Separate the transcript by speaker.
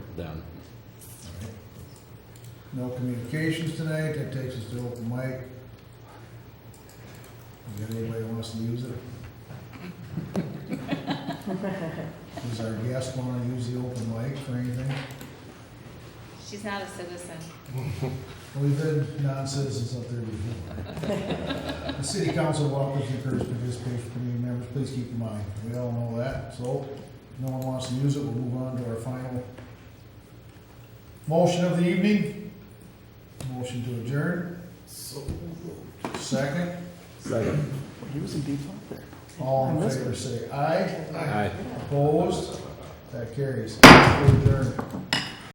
Speaker 1: done.
Speaker 2: No communications tonight, that takes us to open mic. Is there anybody who wants to use it? Does our guest want to use the open mic for anything?
Speaker 3: She's not a citizen.
Speaker 2: We've had non-citizens up there before. The city council welcomes and encourages participation from community members, please keep in mind, we all know that, so if no one wants to use it, we'll move on to our final motion of the evening. Motion to adjourn. Second,
Speaker 1: Second.
Speaker 4: Using default there.
Speaker 2: all in favor, say aye.
Speaker 1: Aye.
Speaker 2: Opposed? That carries. We're adjourned.